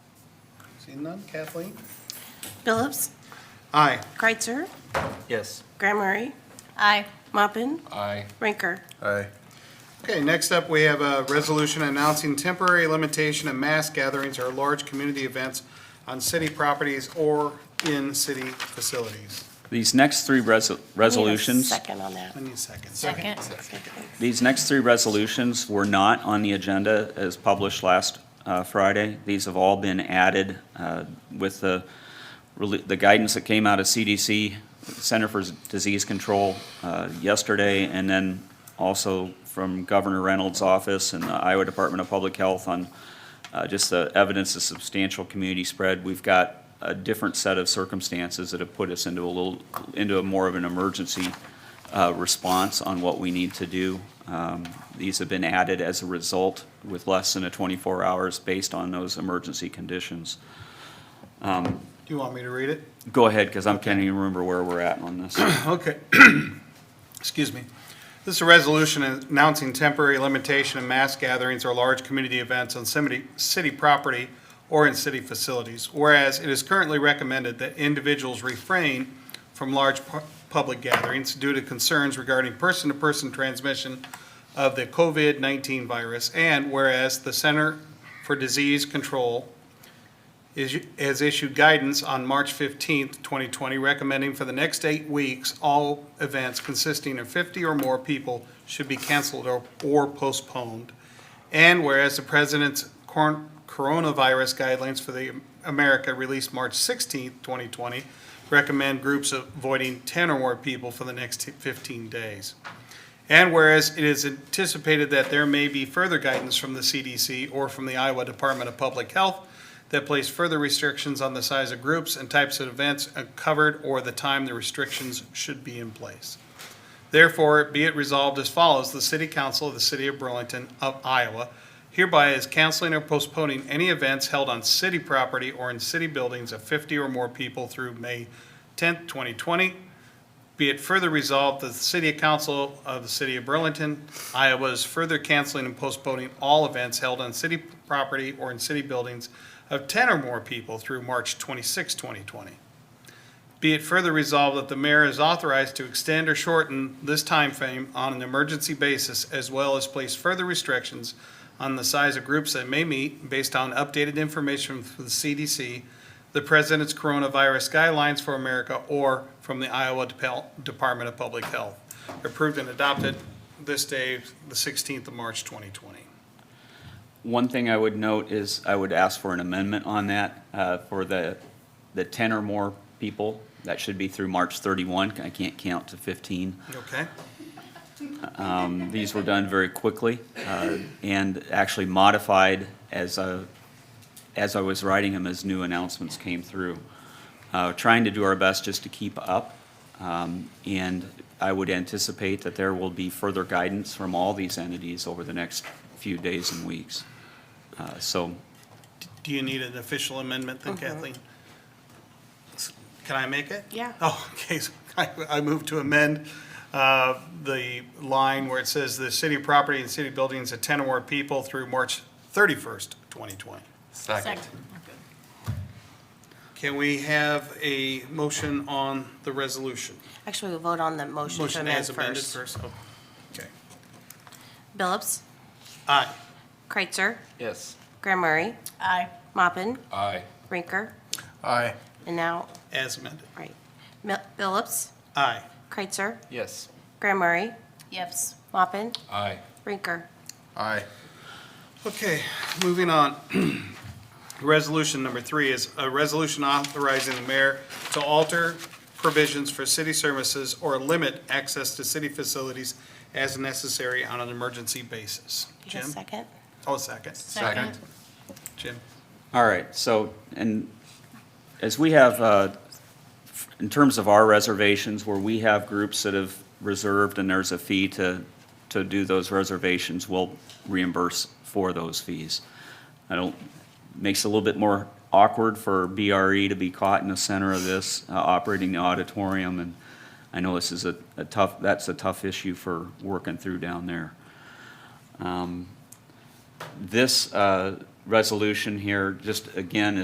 Seeing none, Kathleen? Phillips, Aye. Kreitzer, Yes. Graham Murray, Aye. Mopin, Aye. Rinker. Aye. Okay, next up, we have a resolution announcing temporary limitation of mass gatherings or large community events on city properties or in city facilities. These next three reso- Need a resolutions, Second on that. I need a second. Second. these next three resolutions were not on the agenda as published last uh, Friday. These have all been added uh, with the, rel- the guidance that came out of CDC, Center for Disease Control, uh, yesterday, and then also from Governor Reynolds' office and the Iowa Department of Public Health on uh, just the evidence of substantial community spread. We've got a different set of circumstances that have put us into a little, into a more of an emergency uh, response on what we need to do. Um, These have been added as a result with less than a 24 hours based on those emergency conditions. Do you want me to read it? Go ahead, because I can't even remember where we're at on this. Okay. Excuse me. This is a resolution announcing temporary limitation of mass gatherings or large community events on city, city property or in city facilities. Whereas it is currently recommended that individuals refrain from large pu- public gatherings due to concerns regarding person-to-person transmission of the COVID-19 virus. And whereas the Center for Disease Control is, has issued guidance on March 15th, 2020, recommending for the next eight weeks, all events consisting of 50 or more people should be canceled or, or postponed. And whereas the president's cor- coronavirus guidelines for the America released March 16th, 2020, recommend groups avoiding 10 or more people for the next 15 days. And whereas it is anticipated that there may be further guidance from the CDC or from the Iowa Department of Public Health that place further restrictions on the size of groups and types of events covered or the time the restrictions should be in place. Therefore, be it resolved as follows, the City Council of the City of Burlington of Iowa hereby is canceling or postponing any events held on city property or in city buildings of 50 or more people through May 10th, 2020, be it further resolved that the City Council of the City of Burlington, Iowa is further canceling and postponing all events held on city property or in city buildings of 10 or more people through March 26, 2020. Be it further resolved that the mayor is authorized to extend or shorten this time frame on an emergency basis as well as place further restrictions on the size of groups that may meet based on updated information from the CDC, the president's coronavirus guidelines for America, or from the Iowa Depel- Department of Public Health. Approved and adopted this day, the 16th of March, 2020. One thing I would note is I would ask for an amendment on that uh, for the, the 10 or more people. That should be through March 31. I can't count to 15. Okay? Um, These were done very quickly uh, and actually modified as, uh, as I was writing them, as new announcements came through. Uh, Trying to do our best just to keep up. um, And I would anticipate that there will be further guidance from all these entities over the next few days and weeks. Uh, So Do you need an official amendment Mm-hmm. then, Kathleen? Can I make it? Yeah. Oh, okay, so I, I move to amend, uh, the line where it says the city property and city buildings of ten or more people through March thirty-first, twenty twenty. Second. Can we have a motion on the resolution? Actually, we'll vote on the motion to Motion amend as amended first. first, oh, okay. Phillips, Aye. Kreitzer, Yes. Graham Murray, Aye. Mopin, Aye. Rinker, Aye. and now, As amended. right. Mil- Phillips, Aye. Kreitzer, Yes. Graham Murray, Yes. Mopin, Aye. Rinker. Aye. Okay, moving on. Resolution number three is a resolution authorizing the mayor to alter provisions for city services or limit access to city facilities as necessary on an emergency basis. You got a Jim? second? Oh, second. Second. Jim? All right, so, and as we have, uh, in terms of our reservations, where we have groups that have reserved and there's a fee to, to do those reservations, we'll reimburse for those fees. I don't, makes it a little bit more awkward for BRE to be caught in the center of this, uh, operating the auditorium, and I know this is a a tough, that's a tough issue for working through down there this uh, resolution here, just again,